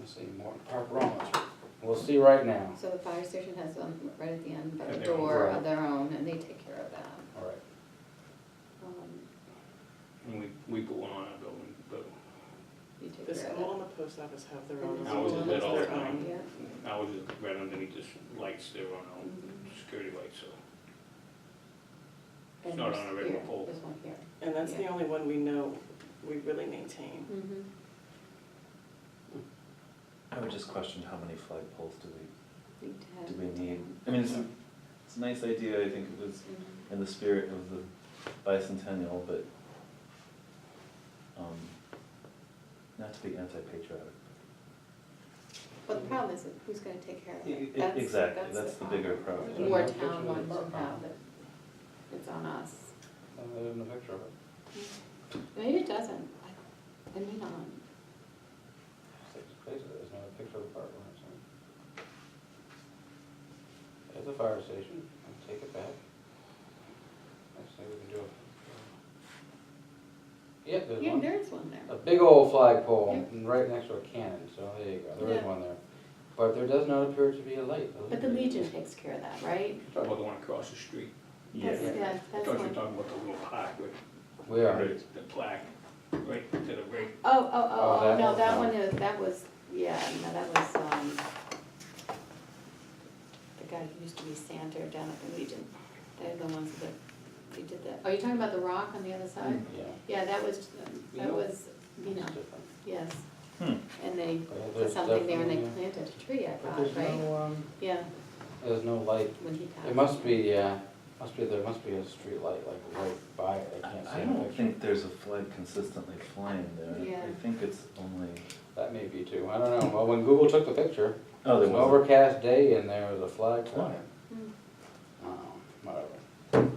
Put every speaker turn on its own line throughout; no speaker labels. this anymore, Park Rollins. We'll see right now.
So the fire station has them right at the end, by
And
the
their own.
door of their own, and they take care of that.
All right.
Um,
And we, we put one on our building, but
You take
The
care of
school and the post office have their own.
And the
ours is
own-
lit all the
their
time.
that.
own.
Yeah,
ours is right underneath this lights, they're on our own security lights, so.
and
not
there's
on a regular
here,
pole.
There's one here.
And that's the only one we know we really maintain.
Mm-hmm.
I would just question how many flagpoles do we,
We have.
do we need? I mean, it's, a- it's a nice idea, I think it was
Mhm.
in the spirit of the bicentennial, but, um, not to be anti-patriotic.
Well, the problem is, that who's gonna take care of
E- e-
it? That's-
Exactly, that's the bigger problem.
More
Yeah.
town wants to have it, it's on us.
I live in a picture of it.
Maybe it doesn't, I, I mean, on,
Six places, there's not a picture of a park Rollins. There's a fire station, I'll take it back. Next thing we can do. Yep, there's
yeah,
one.
there is one
A
there.
big old flagpole, and right next to a cannon, so there you go, there is
Yeah.
one there. But there does not appear to be a light.
But the Legion takes care of that, right?
Talk about the one across the street.
That's- Yeah,
I
that's
thought you were
one.
talking about the little plaque with,
We are.
Right.
the plaque, right to the right.
Oh, oh,
Oh,
oh,
that
oh, no,
one's
that
not.
one is, that was, yeah, no, that was, um, the guy who used to be Santa down at the Legion. They're the ones that, they did that. Oh, you're talking about the rock on the other side?
Yeah.
Yeah, that was, that
Vino?
was, you know,
It's different.
yes.
Hmm.
And they
But
put
there's
something there and they
definitely-
planted a tree, I
But
thought,
there's
right?
no, um,
Yeah,
there's no light.
when he passed.
It must be, uh, must be, there must be a street light, like, right by it, I can't see
I
in the
don't
picture.
think there's a flag consistently flying there,
Yeah.
I think it's only,
That may be too, I don't know, well, when Google took the picture,
oh,
it was
there
an
was,
overcast day and there was a flag flying.
Hmm.
Oh, whatever.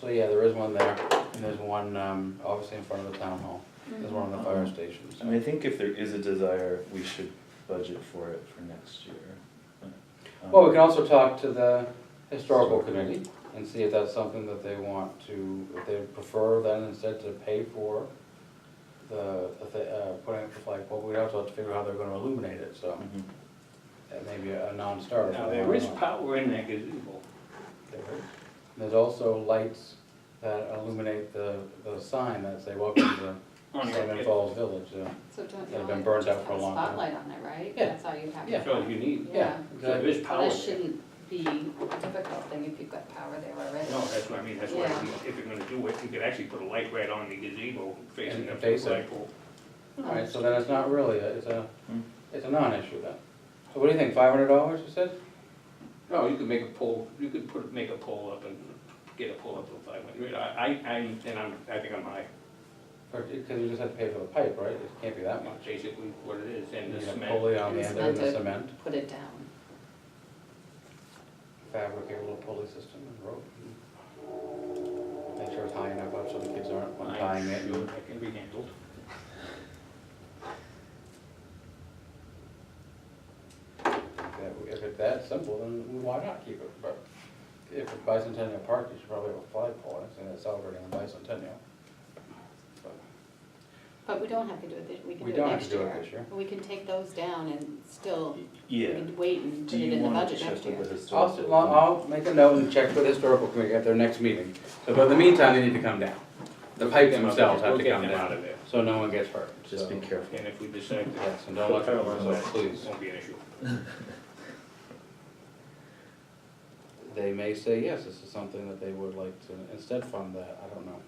So, yeah, there is one there, and there's one, um, obviously in front of the town hall, there's one on the fire station,
Mm-hmm. I mean, I
so.
think if there is a desire, we should budget for it for next year. Um,
Well, we can also talk to the historical committee and see if that's something that they want to, if they prefer then instead to pay for the, if they, uh, putting up the flagpole, we'd also have to figure out how they're gonna illuminate it, so
mhm.
that may be a non-starter.
Now, there is power in that gazebo.
There is. There's also lights that illuminate the, the sign that say, welcome to
on your-
Salmon Falls Village, yeah.
So don't
They've
you
been
only
burned
just
out
have
for a
a
long time.
spotlight on there, right?
Yeah.
That's all you have.
Yeah.
That's all you need.
Yeah.
So there
exactly.
is
Well,
power
that
there.
shouldn't be a difficult thing if you've got power there already.
No, that's what I mean, that's why,
Yeah.
you- if you're gonna do it, you could actually put a light right on the gazebo facing
And
up to the
face it.
flagpole.
All right, so then it's not really, a- it's a,
Hmm.
it's a non-issue then. So what do you think, five hundred dollars, you said?
No, you could make a pole, you could put, make a pole up and get a pole up to five hundred. I, I, I, and I'm, I think I'm high,
Or, cause you just have to pay for the pipe, right? It can't be that much.
That's basically what it is, and the
You have
cement.
pulley on the
And
end and the
cemented.
cement,
Put it down.
fabricate a little pulley system and rope. Make sure it's high enough up so the kids aren't
I'm
untying it.
sure That can be handled.
That- If it's that simple, then why not keep it? But if it's bicentennial park, you should probably have a flagpole, and it's celebrating the bicentennial. But
But we don't have to do it, thi- we can
We
do it
don't have
next
to do
year.
it this year.
We can take those down and still, we
Yeah,
can wait and
do
put it
you
in the
want to
budget
check
next year.
with the
I'll,
historical?
s- well, I'll make a note and check with the historical committee at their next meeting. So, but in the meantime, they need to come down. The pipes themselves have
We'll
to
get
come
them out
down,
of there.
so no one gets hurt.
Just
So-
be careful.
And if we decide to,
Yes, and don't look over, so
it
please.
won't be an issue.
They may say, yes, this is something that they would like to instead fund that, I don't know.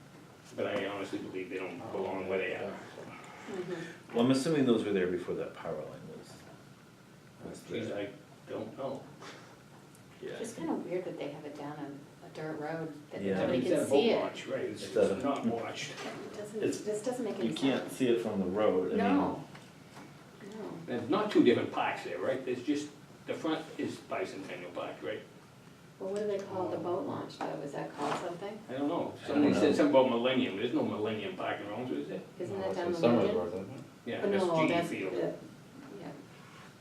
But I honestly believe they don't belong where they are.
Mhm.
Well, I'm assuming those were there before that power line was. was
Geez,
there.
I don't know.
Yeah.
It's just kind of weird that they have it down on a dirt road that
Yeah.
nobody
It's
can
that boat
see it.
launch, Right, it's
It
it's
doesn't.
not watched.
It doesn't,
It's-
it just doesn't make any
You
sense.
can't see it from the road, I mean,
No, no.
There's not two different parks there, right? There's just, the front is Bicentennial Park, right?
Well, what do they call the boat launch though? Is that called something?
I don't know.
I don't
Somebody
know.
said something about Millennium. There's no Millennium Park in Rollinsford, is there?
Isn't
No,
that
it's
down
in
the
Somer's
road?
Road, isn't it?
Yeah,
But
that's
E
no,
GE
that's
Field.
the- Yeah,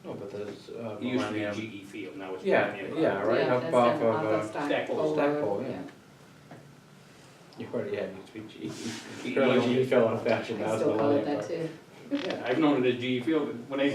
No, but there's, uh,
It used
Millennium-
to be GE Field, now it's
Yeah,
Millennium Park.
yeah, right,
Yeah,
up
that's
off
down
of,
off
uh,
of Stock
Stack Pole.
Pole
Stack
Road,
Pole, yeah. you already had, you speak GE. Apparently,
GE
you E fell in fashion,
I
that's
still call it
Millennium
that
Park.
too.
Yeah, I've known it as GE Field. When I